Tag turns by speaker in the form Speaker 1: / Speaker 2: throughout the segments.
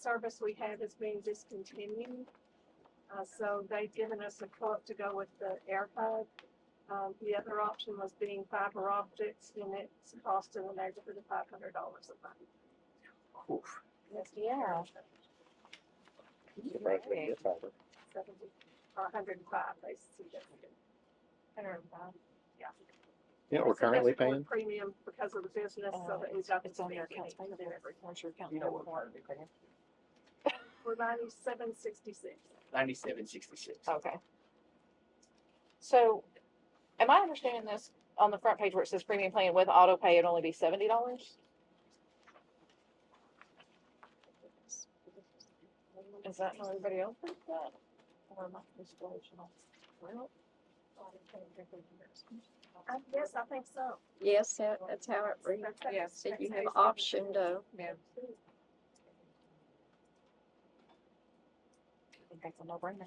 Speaker 1: service we have is being discontinued. Uh, so they've given us a quote to go with the AirPod. Um, the other option was being fiber optics and it's cost in the neighborhood of five hundred dollars a month.
Speaker 2: Oof.
Speaker 1: That's
Speaker 3: Yeah.
Speaker 2: Surprised we didn't get fiber.
Speaker 1: Seventy, or hundred and five, they see that. we didn't. Yeah.
Speaker 2: Yeah, we're
Speaker 1: So that's
Speaker 2: currently
Speaker 1: a more
Speaker 2: paying,
Speaker 1: Premium because of the business, so
Speaker 3: Uh,
Speaker 1: that we've got.
Speaker 3: It's
Speaker 1: the
Speaker 3: on your
Speaker 1: speed
Speaker 3: accounts
Speaker 1: limit
Speaker 3: payable
Speaker 1: and
Speaker 3: there.
Speaker 1: everything.
Speaker 3: Where's your account?
Speaker 4: You know
Speaker 3: payable
Speaker 4: what part of it, Pam?
Speaker 1: We're ninety-seven sixty-six.
Speaker 4: Ninety-seven sixty-six.
Speaker 3: Okay. So, am I understanding this on the front page where it says premium plan with auto pay, it'd only be seventy dollars? Is that how everybody else thinks that? Or am I just delusional? Well,
Speaker 1: I guess, I think so.
Speaker 5: Yes, that, that's how it reads.
Speaker 1: That's-
Speaker 3: Yeah.
Speaker 5: So you
Speaker 1: that's
Speaker 5: have
Speaker 1: how it's-
Speaker 5: option to,
Speaker 3: Yeah, I think that's a no brainer.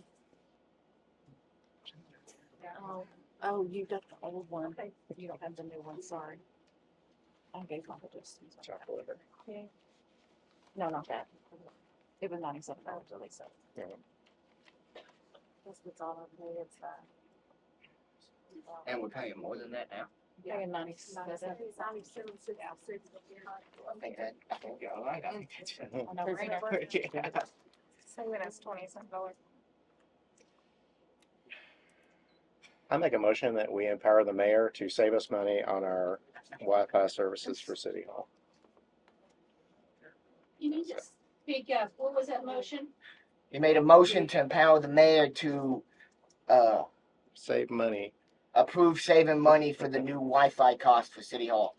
Speaker 3: Oh, oh, you got the old one.
Speaker 1: Okay.
Speaker 3: You don't have the new one, sorry. I gave my address.
Speaker 2: Chocolate liver.
Speaker 3: No, not that. It was ninety-seven dollars at least, so.
Speaker 2: Mhm.
Speaker 3: That's what's all I pay, it's, uh.
Speaker 4: And we're paying more than that now.
Speaker 3: Paying ninety-seven.
Speaker 1: Ninety-seven sixty-six.
Speaker 4: I think that, I think you're all right. I think that's.
Speaker 3: A no-brainer.
Speaker 4: Yeah.
Speaker 1: Saving us twenty some dollars.
Speaker 2: I make a motion that we empower the mayor to save us money on our Wi-Fi services for City Hall.
Speaker 6: You need to speak up. What was that motion?
Speaker 4: You made a motion to empower the mayor to, uh,
Speaker 2: Save money.
Speaker 4: approve saving money for the new Wi-Fi cost for City Hall.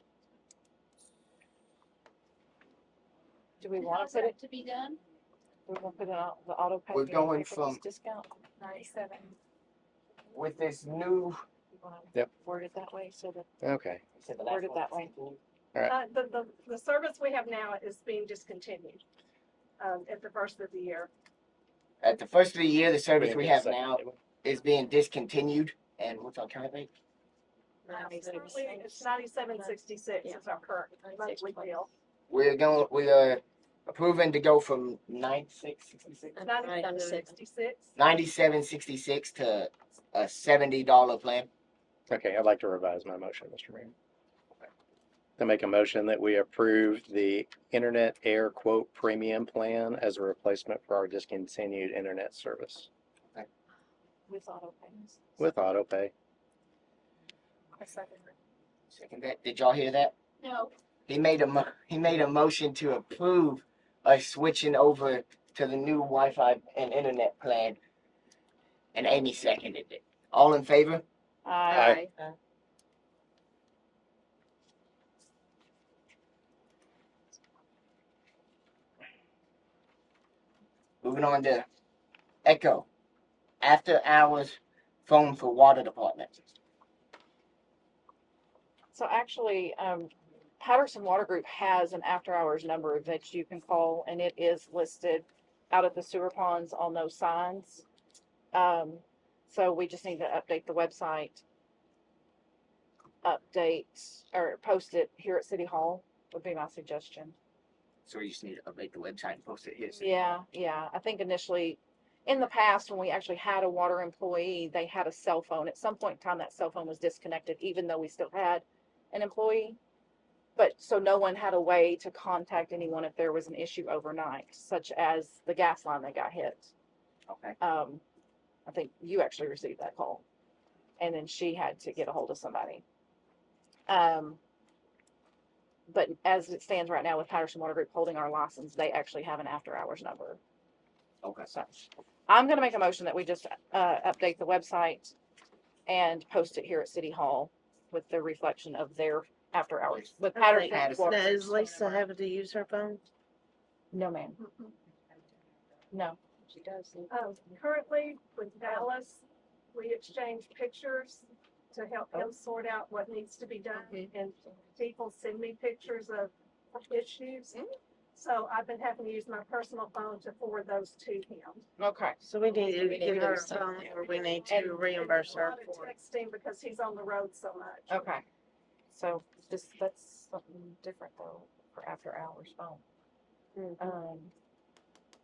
Speaker 3: Do we
Speaker 6: And
Speaker 3: wanna
Speaker 6: how's
Speaker 3: put it,
Speaker 6: that To be done?
Speaker 3: do we wanna put it on the auto pay?
Speaker 4: We're
Speaker 3: do you wanna
Speaker 4: going
Speaker 3: pay for this
Speaker 4: from-
Speaker 3: Discount,
Speaker 1: Ninety-seven.
Speaker 4: With this new.
Speaker 3: you wanna
Speaker 2: Yep.
Speaker 3: word it that way, so that,
Speaker 2: Okay,
Speaker 3: word it that way.
Speaker 1: Uh, the, the, the service we have now is being discontinued, um, at the first of the year.
Speaker 4: At the first of the year, the service we
Speaker 2: Wait a
Speaker 4: have
Speaker 2: second.
Speaker 4: now is being discontinued and what's our current rate?
Speaker 1: Uh, it's currently- It's ninety-seven sixty-six is our current monthly bill.
Speaker 4: We're going, we are approving to go from nine six sixty-six.
Speaker 1: Ninety-seven sixty-six.
Speaker 4: Ninety-seven sixty-six to a seventy dollar plan.
Speaker 2: okay, I'd like to revise my motion, Mr. Mayor. To make a motion that we approve the internet air quote premium plan as a replacement for our discontinued internet service
Speaker 3: With auto payments.
Speaker 2: with auto pay.
Speaker 4: Second that, did y'all hear that?
Speaker 6: No,
Speaker 4: He made a mo- he made a motion to approve us switching over to the new Wi-Fi and internet plan. And Amy seconded it. All in favor?
Speaker 3: Aye.
Speaker 4: Moving on to Echo. After hours phone for water department.
Speaker 3: So actually, um, Patterson Water Group has an after-hours number that you can call, and it is listed out at the sewer ponds on those signs. Um, so we just need to update the website. Update or post it here at City Hall would be my suggestion.
Speaker 4: So you just need to update the website and post it here. so-
Speaker 3: Yeah, yeah. I think initially, in the past, when we actually had a water employee, they had a cell phone. At some point in time, that cell phone was disconnected, even though we still had an employee. But so no one had a way to contact anyone if there was an issue overnight, such as the gas line that got hit.
Speaker 4: Okay.
Speaker 3: Um, I think you actually received that call. And then she had to get a hold of somebody. Um, but as it stands right now with Patterson Water Group holding our license, they actually have an after-hours number.
Speaker 4: Okay.
Speaker 3: So I'm gonna make a motion that we just, uh, update the website and post it here at City Hall with the reflection of their after hours with Patterson.
Speaker 4: Patterson.
Speaker 3: Water.
Speaker 7: Now, is Lisa having to use her phone?
Speaker 3: No, ma'am, no.
Speaker 5: she does. need-
Speaker 1: Um, currently with Dallas, we exchange pictures to help
Speaker 7: Oh.
Speaker 1: him sort out what needs to be done. And people send me pictures of issues.
Speaker 7: Mm-hmm.
Speaker 1: So I've been having to use my personal phone to forward those to him.
Speaker 3: Okay.
Speaker 7: So we need
Speaker 5: We
Speaker 7: to
Speaker 5: need
Speaker 7: get
Speaker 5: to
Speaker 7: her a
Speaker 5: do
Speaker 7: phone
Speaker 5: something.
Speaker 7: or we need
Speaker 1: And-
Speaker 7: to reimburse her
Speaker 1: and a lot of
Speaker 7: for it.
Speaker 1: Texting because he's on the road so much.
Speaker 3: Okay. So just, that's something different though, for after hours phone.
Speaker 7: Mhm.
Speaker 3: Oh. Um,